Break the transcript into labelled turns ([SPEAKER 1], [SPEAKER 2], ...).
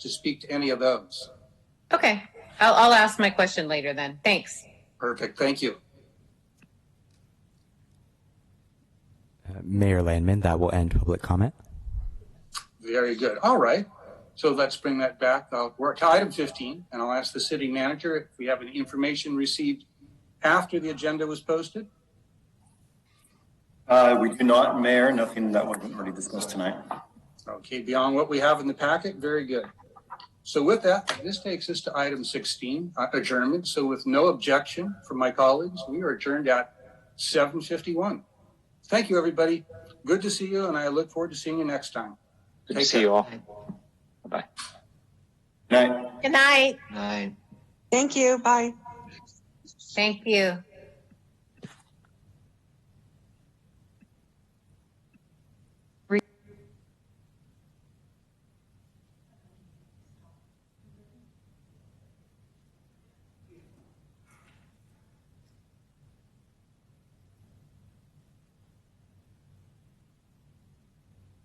[SPEAKER 1] to speak to any of those?
[SPEAKER 2] Okay, I'll, I'll ask my question later then. Thanks.
[SPEAKER 1] Perfect, thank you.
[SPEAKER 3] Uh, Mayor Landman, that will end public comment.
[SPEAKER 1] Very good. All right. So let's bring that back. I'll work to item 15, and I'll ask the city manager if we have any information received after the agenda was posted.
[SPEAKER 4] Uh, we do not, Mayor, nothing that wasn't already discussed tonight.
[SPEAKER 1] Okay, beyond what we have in the packet, very good. So with that, this takes us to item 16, uh, adjournment. So with no objection from my colleagues, we are adjourned at 7:51. Thank you, everybody. Good to see you, and I look forward to seeing you next time.
[SPEAKER 5] Good
[SPEAKER 1] Take
[SPEAKER 5] to see
[SPEAKER 1] care.
[SPEAKER 5] you all.
[SPEAKER 4] Night.
[SPEAKER 2] Good night.
[SPEAKER 5] Night.
[SPEAKER 6] Thank you. Bye.
[SPEAKER 2] Thank you.